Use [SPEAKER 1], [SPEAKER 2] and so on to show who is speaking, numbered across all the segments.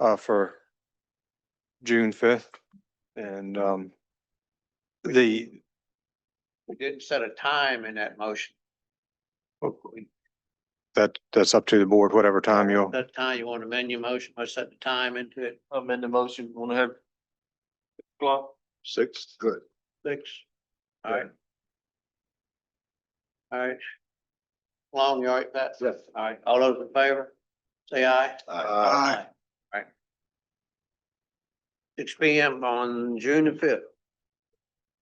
[SPEAKER 1] uh, for June fifth. And, um, the,
[SPEAKER 2] We didn't set a time in that motion.
[SPEAKER 1] that, that's up to the board, whatever time you,
[SPEAKER 2] That time you want to amend your motion, or set the time into it,
[SPEAKER 3] amend the motion, wanna have clock?
[SPEAKER 4] Six, good.
[SPEAKER 2] six. All right. All right. Long, you all right, Pat?
[SPEAKER 4] Yes.
[SPEAKER 2] All right, all those in favor, say aye. All
[SPEAKER 4] Aye.
[SPEAKER 2] right. Six P M on June the fifth.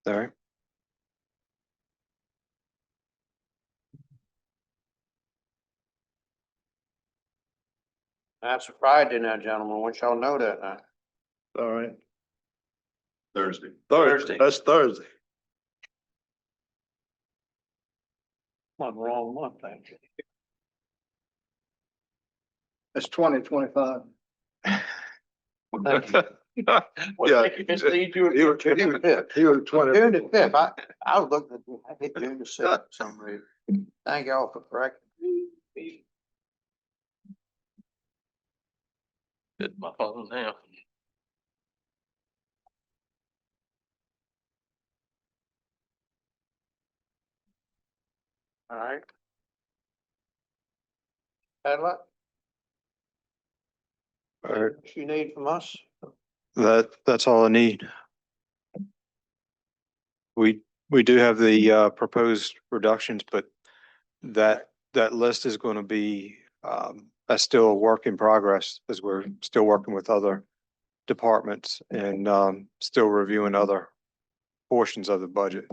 [SPEAKER 1] all right?
[SPEAKER 2] That's a Friday now, gentlemen, want y'all know that now.
[SPEAKER 4] All right. Thursday.
[SPEAKER 2] Thursday.
[SPEAKER 4] That's Thursday.
[SPEAKER 2] One wrong month, thank you.
[SPEAKER 4] That's twenty twenty-five.
[SPEAKER 2] Thank you.
[SPEAKER 4] Yeah.
[SPEAKER 2] Well, thank you, Mr. Lee, you were-
[SPEAKER 4] You were, you were, you were twenty.
[SPEAKER 2] June the fifth, I, I was looking at, I hit June the sixth for some reason. Thank y'all for correcting. me.
[SPEAKER 3] Hit my phone now.
[SPEAKER 2] All right. Had luck,
[SPEAKER 1] All right,
[SPEAKER 2] what you need from us?
[SPEAKER 1] that, that's all I need. We, we do have the, uh, proposed reductions, but that, that list is going to be, um, that's still a work in progress as we're still working with other departments and, um, still reviewing other portions of the budget,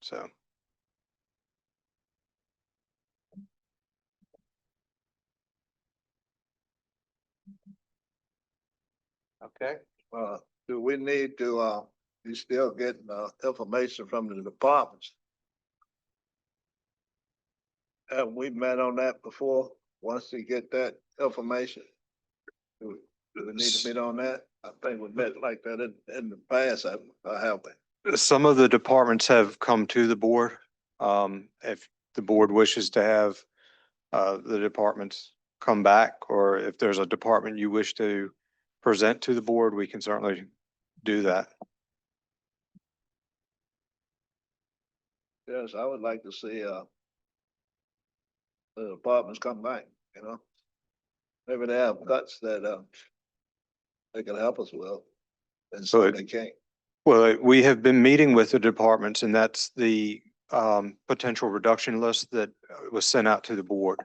[SPEAKER 1] so.
[SPEAKER 2] Okay,
[SPEAKER 4] Uh, do we need to, uh, you still getting, uh, information from the departments? Have we met on that before? Once you get that information? Do we- do we need to meet on that? I think we met like that in, in the past, I, I have.
[SPEAKER 1] Some of the departments have come to the board. Um, if the board wishes to have uh, the departments come back, or if there's a department you wish to present to the board, we can certainly do that.
[SPEAKER 4] Yes, I would like to see, uh, the departments come back, you know? Maybe they have guts that, uh, they can help us with, and so
[SPEAKER 1] Right.
[SPEAKER 4] they can't.
[SPEAKER 1] Well, we have been meeting with the departments and that's the um potential reduction list that uh, was sent out to the board.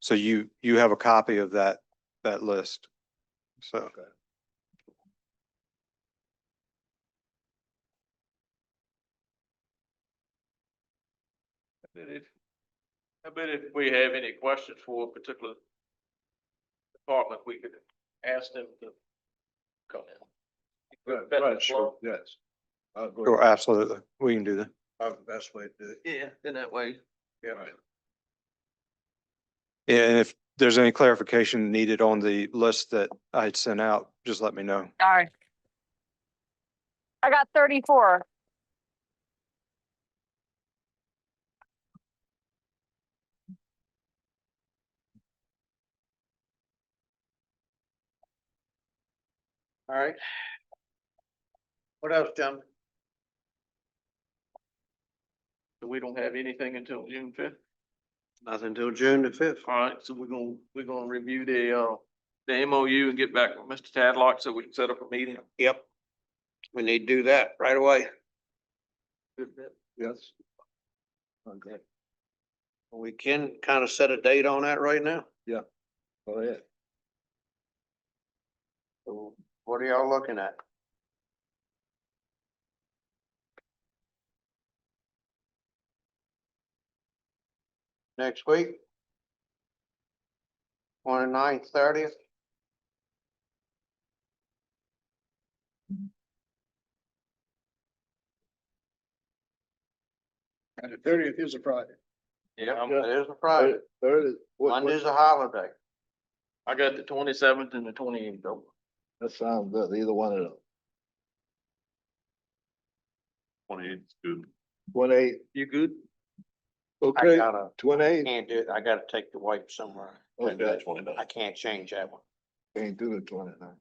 [SPEAKER 1] So you, you have a copy of that, that list. So.
[SPEAKER 3] I bet if, I bet if we have any questions for a particular department, we could ask them to come in.
[SPEAKER 4] Right,
[SPEAKER 3] better
[SPEAKER 4] right, sure,
[SPEAKER 3] flow.
[SPEAKER 4] yes. I agree.
[SPEAKER 1] Sure, absolutely. We can do that.
[SPEAKER 4] That's the best way to do it.
[SPEAKER 3] Yeah, then that way.
[SPEAKER 4] Yeah.
[SPEAKER 1] Yeah, And if there's any clarification needed on the list that I had sent out, just let me know.
[SPEAKER 5] Sorry. I got thirty-four.
[SPEAKER 2] all right. What else, gentlemen?
[SPEAKER 3] So we don't have anything until June fifth.
[SPEAKER 2] Nothing until June the fifth.
[SPEAKER 3] All right, so we're gonna, we're gonna review the, uh, the MOU and get back with Mr. Tadlock so we can set up a meeting.
[SPEAKER 2] Yep. We need to do that right away.
[SPEAKER 4] Yes. Okay,
[SPEAKER 2] We can kind of set a date on that right now.
[SPEAKER 4] go ahead.
[SPEAKER 2] So What are y'all looking at? Next week? Twenty-nine, thirtieth?
[SPEAKER 4] And the thirtieth is a Friday.
[SPEAKER 3] Yeah,
[SPEAKER 2] It is a Friday.
[SPEAKER 4] Thirty. Uh, what- what-
[SPEAKER 2] Monday's a holiday.
[SPEAKER 3] I got the twenty-seventh and the twenty-eighth open.
[SPEAKER 4] That sounds good, either one of them.
[SPEAKER 3] Twenty-eighth is good.
[SPEAKER 4] Twenty-eight.
[SPEAKER 3] You good?
[SPEAKER 2] I
[SPEAKER 4] Okay,
[SPEAKER 2] gotta,
[SPEAKER 4] twenty-eight.
[SPEAKER 2] can't do, it. I gotta take the wife somewhere.
[SPEAKER 4] Okay.
[SPEAKER 2] I can't change that one.
[SPEAKER 4] Can't do the twenty-nine.